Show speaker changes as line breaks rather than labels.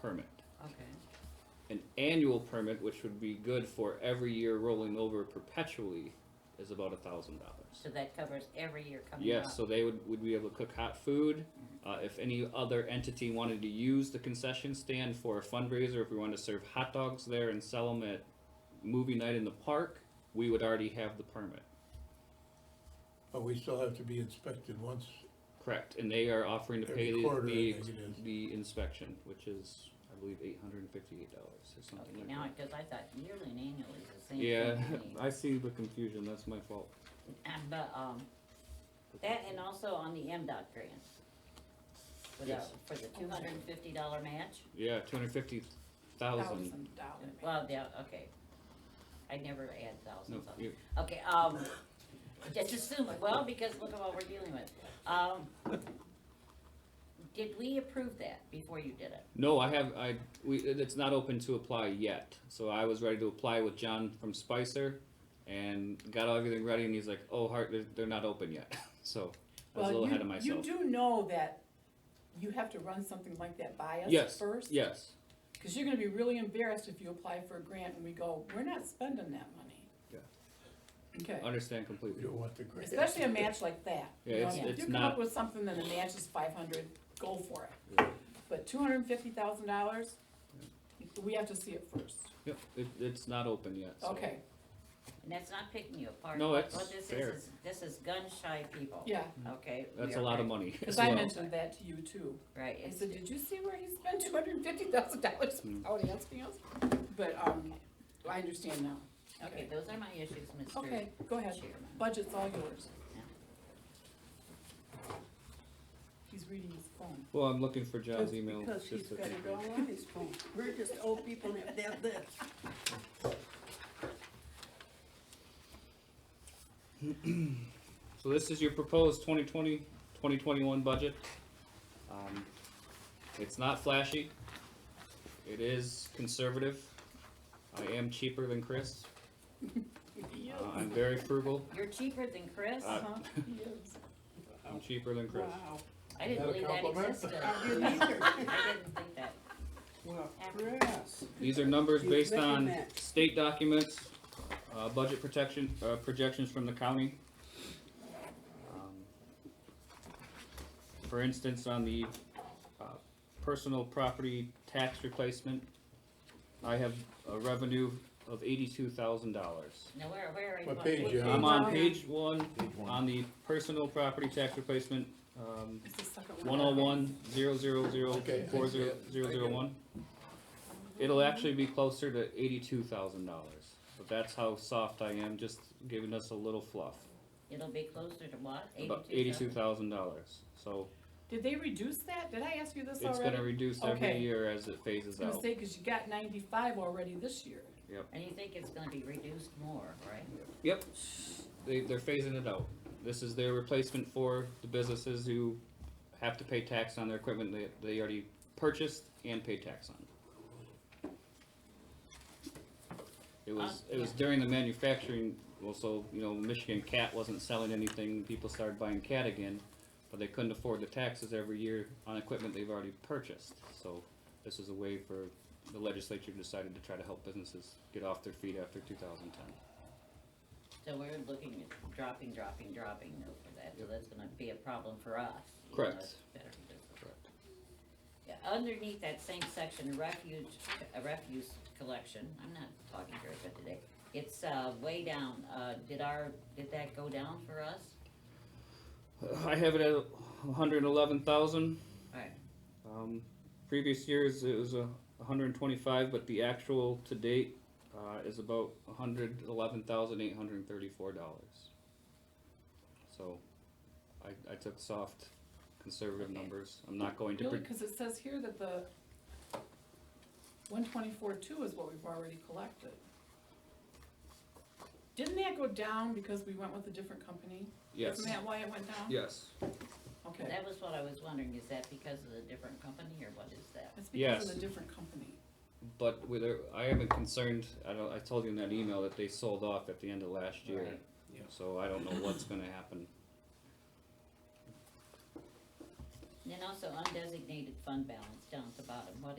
permit.
okay,
An annual permit, which would be good for every year rolling over perpetually, is about a thousand dollars.
so that covers every year coming up?
Yes, so they would, would be able to cook hot food. Uh, if any other entity wanted to use the concession stand for a fundraiser, if we wanted to serve hot dogs there and sell them at movie night in the park, we would already have the permit.
But we still have to be inspected once,
Correct, and they are offering to pay
Every
the,
quarter, I
the,
think it is.
the inspection, which is, I believe, eight hundred and fifty-eight dollars or something
Okay,
like
now,
that.
because I thought yearly and annually is the same
Yeah,
thing to me.
I see the confusion, that's my fault.
Uh, But, um, that and also on the MDOT grant. For the,
Yes.
for the two hundred and fifty dollar match,
Yeah, two hundred fifty thousand,
thousand dollar.
well, yeah, okay. I never add
no,
thousands up.
you,
Okay, um, just assume, it. well, because look at what we're dealing with, um. Did we approve that before you did it?
No, I have, I, we, it's not open to apply yet, so I was ready to apply with John from Spicer and got everything ready and he's like, oh, Hart, they're, they're not open yet, so I was a
Well,
little
you-
ahead of myself.
You do know that you have to run something like that by us
Yes,
first?
Yes,
Cause you're gonna be really embarrassed if you apply for a grant and we go, we're not spending that money.
Yeah.
Okay,
understand
we
completely,
don't want the grant.
especially a match like that. you
Yeah,
know,
it's-
if
it's
You come up
not-
with something and the match is five hundred, go for it.
Yeah.
But two hundred and fifty thousand dollars, we have to see it first,
yep, it, it's not open yet, so.
okay,
And that's not picking you apart.
No, that's
What this
fair.
is, is, this is gun shy people.
yeah.
Okay. we
That's
are
a lot of
right-
money as
Cause I
well.
mentioned that to you too.
Right,
I
it's,
said, did you see where he spent two hundred and fifty thousand dollars
Mm.
without asking us? But, um, I understand now.
okay, those are my issues, Mr.
Okay, go ahead.
Chairman.
Budget's all yours.
Yeah.
He's reading his phone.
Well, I'm looking for John's email.
Because
just
he's
to
got it
confirm.
all on his phone. We're just old people that have this.
So this is your proposed 2020, 2021 budget. Um, It's not flashy. It is conservative. I am cheaper than Chris. Uh, I'm very frugal.
You're cheaper than Chris?
Uh,
Uh-huh, he is.
I'm cheaper than Chris.
Wow.
I didn't
that a
believe that
compliment?
existed.
I didn't either.
I didn't think that.
Well, Chris.
These are numbers
He's
based
making
on
that.
state documents, uh, budget protection, uh, projections from the county. Um, For instance, on the, uh, personal property tax replacement, I have a revenue of eighty-two thousand dollars.
Now, where, where are you?
What
on-
page, John?
I'm on
Okay.
page one,
Page one.
on the personal property tax replacement, um,
It's the second
one oh one, zero zero zero,
Okay, I
four
see
zero,
it.
zero zero one. It'll actually be closer to eighty-two thousand dollars, but that's how soft I am, just giving us a little fluff.
It'll be closer to what?
About
Eighty-two
eighty-two thousand
thousand?
dollars, so
Did they reduce that? Did I ask you this
it's
already?
gonna reduce every
Okay.
year as it phases
I was
out.
gonna say, cause you got ninety-five already this year.
And you think it's gonna be reduced more, right?
Yep, they, they're phasing it out. This is their replacement for the businesses who have to pay tax on their equipment they, they already purchased and pay tax on. It was, it was during the manufacturing, well, so, you know, Michigan Cat wasn't selling anything, people started buying cat again, but they couldn't afford the taxes every year on equipment they've already purchased, so this is a way for, the legislature decided to try to help businesses get off their feet after two thousand ten.
So we're looking at dropping, dropping, dropping over that, so that's gonna be a problem for us. even though
Correct.
it's better for business.
Correct.
Yeah, underneath that same section, refuge, uh, refuse collection, I'm not talking very good today. It's, uh, way down, uh, did our, did that go down for us?
I have it at hundred and eleven thousand.
Alright,
Um, previous years, it was a hundred and twenty-five, but the actual to date, uh, is about hundred eleven thousand eight hundred and thirty-four dollars. So, I, I took soft, conservative
Okay.
numbers, I'm not going to,
Really,
pre-
cause it says here that the one twenty-four two is what we've already collected. Didn't that go down because we went with a different company?
yes,
Isn't that why it went down?
yes.
Okay.
that was what I was wondering, is that because of the different company, or what is that?
It's because of
Yes.
the different company.
But whether, I am concerned, I don't, I told you in that email that they sold off at the end of last year.
Right.
Yeah.
So I don't know what's gonna happen.
And then also undesignated fund balance down at the bottom, what